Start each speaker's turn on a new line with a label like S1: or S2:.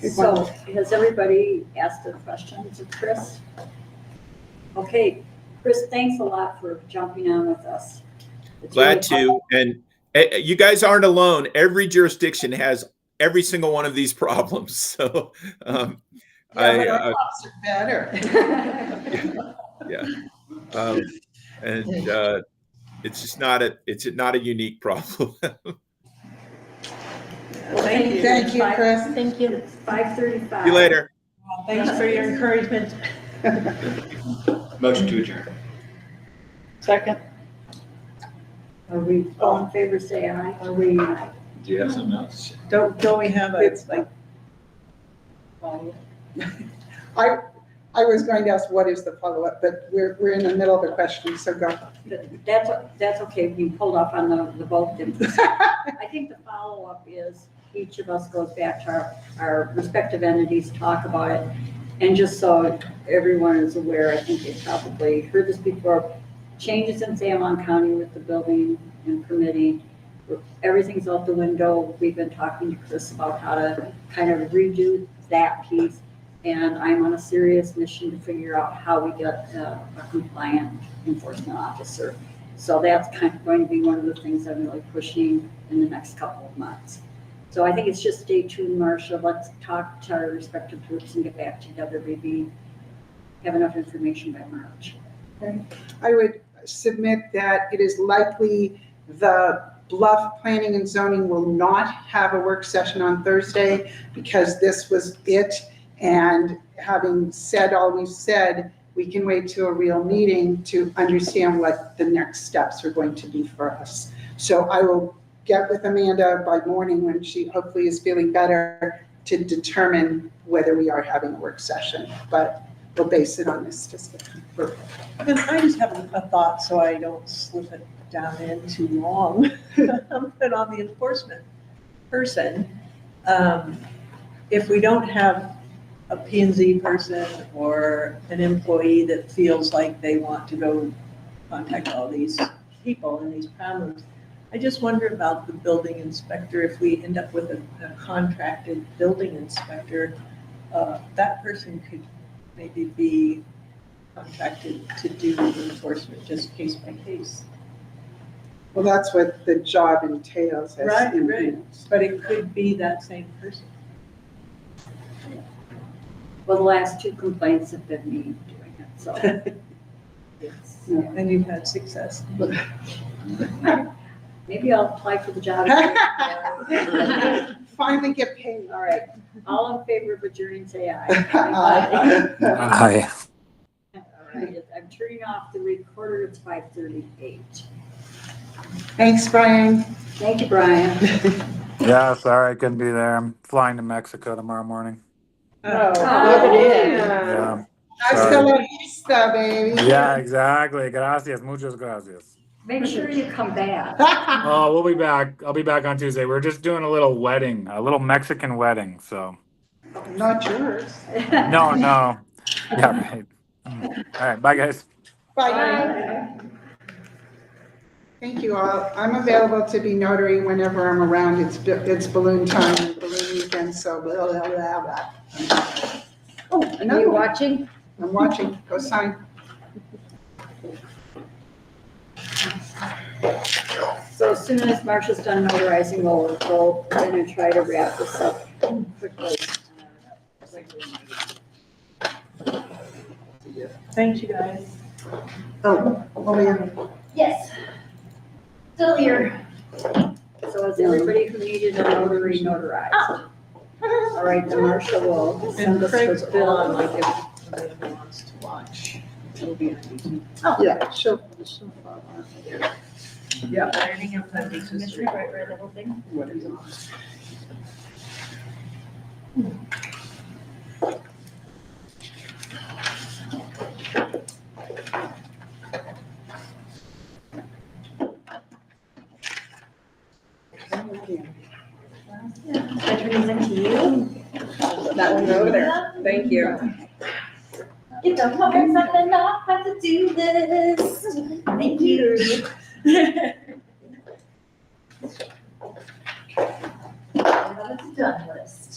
S1: Good
S2: So has everybody asked their questions of Chris? Okay, Chris, thanks a lot for jumping on with us. It's
S3: Glad
S2: really
S3: to. And eh, eh, you guys aren't alone. Every jurisdiction has every single one of these problems. So um, I,
S1: Yeah,
S3: uh,
S1: our cops are Better.
S3: um, and uh, it's just not a, it's not a unique problem.
S2: helpful. Thank you.
S1: Thank you,
S2: Five-
S1: Chris.
S4: Thank you.
S2: It's five thirty-five.
S3: See you later.
S1: Thanks for your encouragement.
S5: Motion to adjourn.
S4: Second.
S2: Are we, all in favor, say aye. Are we? uh,
S5: Do you have something else?
S1: Don't, don't we have a, it's like, I, I was going to ask, what is the follow-up, but we're, we're in the middle of a question, so go.
S2: That's, that's okay, we pulled off on the, the vote then. I think the follow-up is, each of us goes back to our, our respective entities, talk about it. And just so everyone is aware, I think they probably heard this before, changes in San Juan County with the building and permitting. Everything's out the window, we've been talking to Chris about how to kind of redo that piece. And I'm on a serious mission to figure out how we get uh, a compliant enforcement officer. So that's kind of going to be one of the things I'm really pushing in the next couple of months. So I think it's just stay tuned, Marcia. Let's talk to our respective groups and get back to WBB. Have enough information by March.
S1: I would submit that it is likely the Bluff Planning and Zoning will not have a work session on Thursday because this was it. And having said all we've said, we can wait to a real meeting to understand what the next steps are going to be for us. So I will get with Amanda by morning when she hopefully is feeling better to determine whether we are having a work session. But we'll base it on this discussion.
S6: And I just have a- a thought, so I don't slip it down in too long. But on the enforcement person, um, if we don't have a P and Z person or an employee that feels like they want to go contact all these people and these problems, I just wonder about the building inspector, if we end up with a a contracted building inspector, uh, that person could maybe be contracted to do enforcement just case by case.
S1: Well, that's what the job entails as.
S6: Right, right.
S1: immigrants.
S6: But it could be that same person.
S2: Well, the last two complaints have been me doing it, so. it's, you know,
S6: And you've had success.
S2: Maybe I'll apply for the job.
S1: Finally get paid.
S2: All right. All in favor of adjourning, say aye.
S1: Aye.
S7: Hi.
S2: All right, I'm turning off the recorder, it's five thirty-eight.
S1: Thanks, Brian.
S2: Thank you, Brian.
S7: Yeah, sorry I couldn't be there. I'm flying to Mexico tomorrow morning.
S1: Oh,
S7: Yeah,
S1: Hasta la vista, baby.
S7: yeah exactly. Gracias. Muchas gracias.
S2: Make sure you come back.
S7: Oh, we'll be back. I'll be back on Tuesday. We're just doing a little wedding, a little Mexican wedding. So,
S1: Not yours.
S7: no, no. Yeah, right. All right. Bye, guys.
S1: Bye. Thank you all. I'm available to be notary whenever I'm around. It's, b- it's balloon time, balloon weekend, so blah, blah, blah, blah. Oh,
S2: Are
S1: another
S2: you
S1: one.
S2: watching?
S1: I'm watching. Go sign.
S2: So as soon as Marcia's done notarizing, we'll, we'll then and try to wrap this up quickly.
S6: Thank you, guys.
S1: Oh, oh, yeah.
S8: Yes. Still here.
S2: So is everybody who needed a notary notarized? All right, then Marcia will send
S6: And
S2: us
S6: Craig's
S2: her bill
S6: on,
S2: and
S6: like,
S2: like,
S6: if somebody wants to watch. It'll be on YouTube.
S1: Yeah, sure.
S6: Yeah.
S8: Commissioner Bright read the whole thing. I turn these into you.
S1: That one over there.
S8: Thank you. It don't come in something off my to-do list. Thank you. with the done list.